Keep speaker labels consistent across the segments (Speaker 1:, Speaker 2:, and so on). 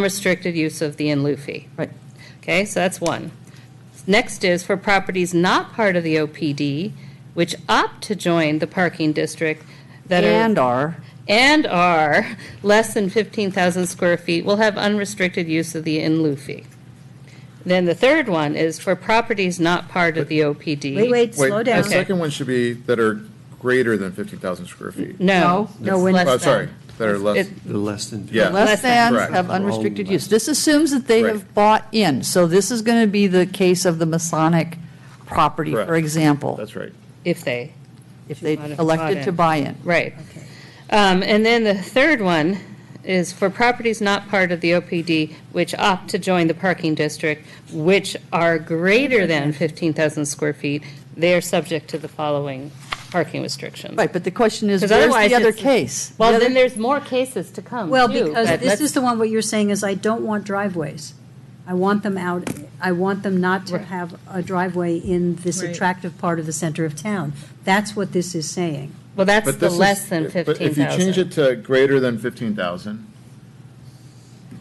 Speaker 1: unrestricted use of the in lieu fee.
Speaker 2: Right.
Speaker 1: Okay, so that's one. Next is for properties not part of the OPD, which opt to join the parking district that
Speaker 2: And
Speaker 1: are,
Speaker 2: are,
Speaker 1: and are less than 15,000 square feet will have unrestricted use of the in lieu fee. Then the third one is for properties not part of the OPD.
Speaker 3: Wait, wait,
Speaker 4: Wait,
Speaker 3: slow down.
Speaker 4: The second one should be that are greater than 15,000 square feet.
Speaker 1: No.
Speaker 2: No, no,
Speaker 1: it's
Speaker 2: when-
Speaker 1: less
Speaker 4: Oh,
Speaker 1: than.
Speaker 4: sorry, that are less,
Speaker 1: It-
Speaker 5: The less than.
Speaker 4: Yeah.
Speaker 2: less
Speaker 1: Less than,
Speaker 2: than
Speaker 4: correct.
Speaker 2: have unrestricted
Speaker 5: Wrong
Speaker 2: use. This assumes that they
Speaker 4: Right.
Speaker 2: have bought in, so this is going to be the case of the Masonic property, for
Speaker 4: Correct.
Speaker 2: example,
Speaker 4: that's right.
Speaker 1: If they,
Speaker 2: if they
Speaker 1: Bought in.
Speaker 2: elected to buy in.
Speaker 1: right. Um, And then the third one is for properties not part of the OPD which opt to join the parking district, which are greater than 15,000 square feet, they are subject to the following parking restrictions.
Speaker 2: Right, but the question is,
Speaker 1: Because
Speaker 2: where's
Speaker 1: otherwise
Speaker 2: the other
Speaker 1: it's-
Speaker 2: case? The
Speaker 1: Well,
Speaker 2: other-
Speaker 1: then there's more cases to come,
Speaker 3: Well,
Speaker 1: too,
Speaker 3: because
Speaker 1: but
Speaker 3: this
Speaker 1: let's-
Speaker 3: is the one, what you're saying is I don't want driveways. I want them out, I want them not to
Speaker 1: Right.
Speaker 3: have a driveway in this attractive part of the center of town. That's what this is saying.
Speaker 1: Well, that's
Speaker 4: But
Speaker 1: the
Speaker 4: this is-
Speaker 1: less than
Speaker 4: But if you change
Speaker 1: 15,000.
Speaker 4: it to greater than 15,000,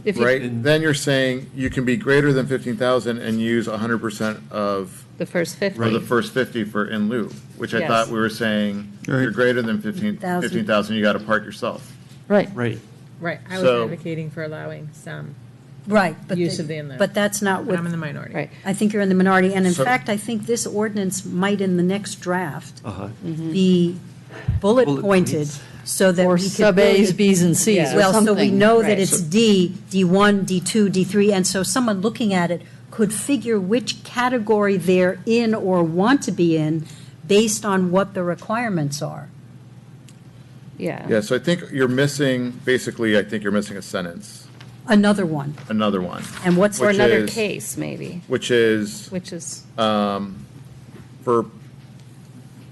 Speaker 1: If you-
Speaker 4: right, then you're saying you can be greater than 15,000 and use 100% of,
Speaker 1: The first 50.
Speaker 4: or the first 50 for in lieu, which I
Speaker 1: Yes.
Speaker 4: thought we were saying, you're
Speaker 5: Right.
Speaker 4: greater than 15
Speaker 3: 15,000.
Speaker 4: 15,000, you got to park yourself.
Speaker 2: Right,
Speaker 5: Right.
Speaker 6: Right, I was
Speaker 4: So-
Speaker 6: advocating for allowing some,
Speaker 3: Right. but
Speaker 6: Use
Speaker 3: the-
Speaker 6: of the in-law.
Speaker 3: But that's not
Speaker 6: but I'm in the
Speaker 3: what,
Speaker 6: minority.
Speaker 1: Right.
Speaker 3: I think you're in the minority, and in
Speaker 4: So-
Speaker 3: fact, I think this ordinance might in the next draft
Speaker 5: Uh-huh.
Speaker 3: be bullet
Speaker 5: Bullet
Speaker 3: pointed
Speaker 5: points.
Speaker 3: so that
Speaker 2: or
Speaker 3: we could.
Speaker 2: sub As,
Speaker 3: really-
Speaker 2: Bs, and Cs, or
Speaker 3: Well, so we
Speaker 2: something.
Speaker 3: know
Speaker 1: Right.
Speaker 3: that it's D, D1, D2, D3, and so someone looking at it could figure which category they're in or want to be in based on what the requirements are.
Speaker 4: Yeah, so I think you're missing, basically, I think you're missing a sentence,
Speaker 3: Another one.
Speaker 4: another one,
Speaker 3: And what's,
Speaker 1: Or
Speaker 4: Which
Speaker 1: another
Speaker 4: is-
Speaker 1: case, maybe,
Speaker 4: which is
Speaker 1: which is,
Speaker 4: for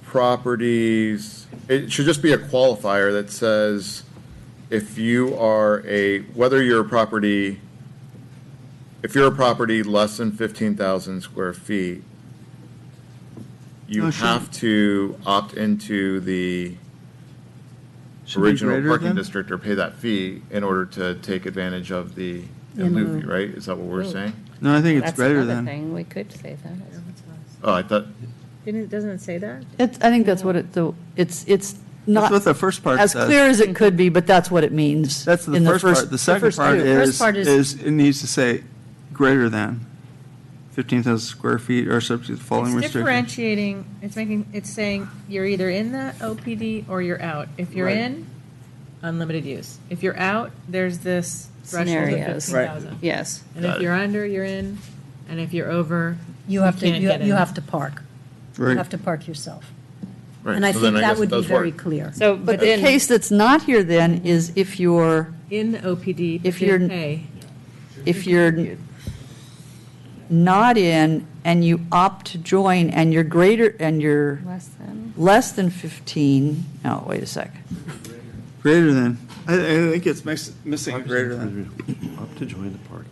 Speaker 4: properties, it should just be a qualifier that says if you are a, whether you're a property, if you're a property less than 15,000 square feet, you
Speaker 5: Oh, sure.
Speaker 4: have to opt into the
Speaker 5: Should be
Speaker 4: original
Speaker 5: greater
Speaker 4: parking
Speaker 5: than?
Speaker 4: district or pay that fee in order to take advantage of the
Speaker 3: In
Speaker 4: in lieu
Speaker 3: lieu.
Speaker 4: fee, right? Is that what we're saying?
Speaker 5: No, I think it's
Speaker 1: that's
Speaker 5: greater
Speaker 1: another
Speaker 5: than.
Speaker 1: thing, we could say that.
Speaker 6: No, it's not.
Speaker 4: Oh, I thought,
Speaker 6: Didn't, doesn't it say that?
Speaker 2: It's, I think that's what it, the- it's, it's
Speaker 5: That's what
Speaker 2: not
Speaker 5: the first part
Speaker 2: as
Speaker 5: says.
Speaker 2: clear as it could be, but that's what it means.
Speaker 5: That's the
Speaker 2: in
Speaker 5: first part. The second
Speaker 2: first
Speaker 5: part
Speaker 2: two.
Speaker 5: is,
Speaker 3: part is-
Speaker 5: is, it needs to say greater than 15,000 square feet or subject to the following
Speaker 6: It's
Speaker 5: restrictions.
Speaker 6: differentiating, it's making, it's saying you're either in that OPD or you're out. If you're
Speaker 5: Right.
Speaker 6: in, unlimited use. If you're out, there's this threshold of
Speaker 1: Scenarios.
Speaker 6: fifteen
Speaker 1: Right.
Speaker 6: thousand.
Speaker 1: Yes,
Speaker 6: And
Speaker 4: Got
Speaker 6: if
Speaker 4: it.
Speaker 6: you're under, you're in, and if you're over,
Speaker 3: you have to,
Speaker 6: can't
Speaker 3: you
Speaker 6: get
Speaker 3: you
Speaker 6: in.
Speaker 3: have to park. You
Speaker 5: Right.
Speaker 3: have to park yourself.
Speaker 4: right.
Speaker 3: And I
Speaker 4: so
Speaker 3: think
Speaker 4: then
Speaker 3: that
Speaker 4: guess it
Speaker 3: would be
Speaker 4: does
Speaker 3: very
Speaker 4: work.
Speaker 3: clear.
Speaker 1: so, but
Speaker 2: But the
Speaker 1: then.
Speaker 2: case that's not here then is if you're,
Speaker 6: in the OPD,
Speaker 2: If
Speaker 6: if
Speaker 2: you're-
Speaker 6: you're pay.
Speaker 2: if you're not in and you opt to join and you're greater, and you're
Speaker 1: Less than.
Speaker 2: less than 15, no, wait a sec.
Speaker 5: Greater than. I, I think it's mis- missing greater than.
Speaker 7: Up to join the parking.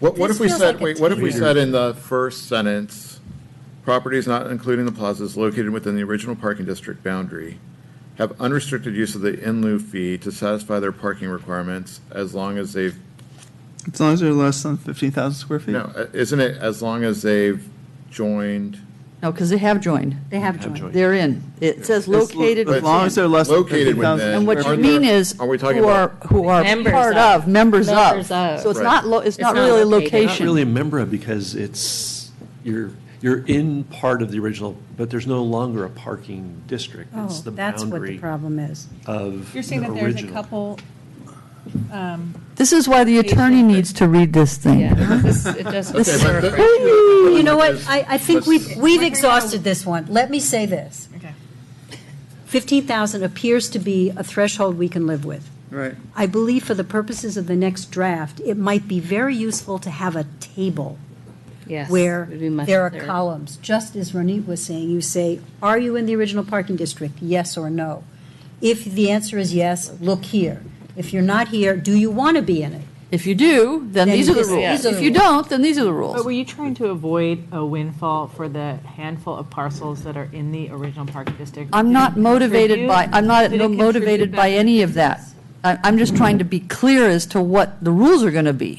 Speaker 4: What, what
Speaker 3: This
Speaker 4: if we
Speaker 3: feels
Speaker 4: said,
Speaker 3: like a
Speaker 4: wait, what if we
Speaker 5: teaser.
Speaker 4: said in the first sentence, properties not including the plazas located within the original parking district boundary have unrestricted use of the in lieu fee to satisfy their parking requirements as long as they've,
Speaker 5: As long as they're less than 15,000 square feet.
Speaker 4: no, uh, isn't it as long as they've joined?
Speaker 2: No, because they have joined.
Speaker 3: They have joined.
Speaker 2: They're in. It says
Speaker 5: lo-
Speaker 2: located
Speaker 5: as long as
Speaker 2: within.
Speaker 5: they're less than
Speaker 4: Located
Speaker 5: 15,000
Speaker 4: within.
Speaker 2: And what
Speaker 5: square
Speaker 2: you
Speaker 4: Are
Speaker 5: feet.
Speaker 2: mean
Speaker 4: there-
Speaker 2: is,
Speaker 4: are we talking
Speaker 2: who are,
Speaker 4: about-
Speaker 2: who are
Speaker 1: Members
Speaker 2: part
Speaker 1: of.
Speaker 2: of, members of.
Speaker 1: Members of.
Speaker 2: So it's
Speaker 4: Right.
Speaker 2: not, lo- it's
Speaker 1: It's
Speaker 2: not
Speaker 1: not
Speaker 2: really
Speaker 1: located.
Speaker 7: You're not
Speaker 2: location.
Speaker 7: really a member of because it's, you're, you're in part of the original, but there's no longer a parking district.
Speaker 3: Oh,
Speaker 7: It's the
Speaker 3: that's what the
Speaker 7: boundary
Speaker 3: problem is.
Speaker 7: of
Speaker 6: You're saying
Speaker 7: the
Speaker 6: that there's a
Speaker 7: original.
Speaker 6: couple,
Speaker 2: This is why the attorney needs to read this thing.
Speaker 1: Yeah, this, it does.
Speaker 4: Okay, but the-
Speaker 3: You know what, I, I think
Speaker 4: Let's-
Speaker 3: we've, we've exhausted this one. Let me say this.
Speaker 6: okay.
Speaker 3: 15,000 appears to be a threshold we can live with.
Speaker 5: Right.
Speaker 3: I believe for the purposes of the next draft, it might be very useful to have a table
Speaker 1: Yes,
Speaker 3: where
Speaker 1: it'd be much
Speaker 3: there are
Speaker 1: clearer.
Speaker 3: columns, just as Ronit was saying, you say, are you in the original parking district, yes or no? If the answer is yes, look here. If you're not here, do you want to be in it?
Speaker 2: If you do, then
Speaker 3: Then
Speaker 2: these are the
Speaker 3: this-
Speaker 2: rules.
Speaker 3: these are the
Speaker 2: If you
Speaker 3: rules.
Speaker 2: don't, then these are the
Speaker 6: But were
Speaker 2: rules.
Speaker 6: you trying to avoid a windfall for the handful of parcels that are in the original parking district?
Speaker 2: I'm not motivated by, I'm not
Speaker 6: Did it contribute
Speaker 2: motivated by
Speaker 6: back
Speaker 2: any of that. I, I'm just trying to be clear as to what the rules are going to be.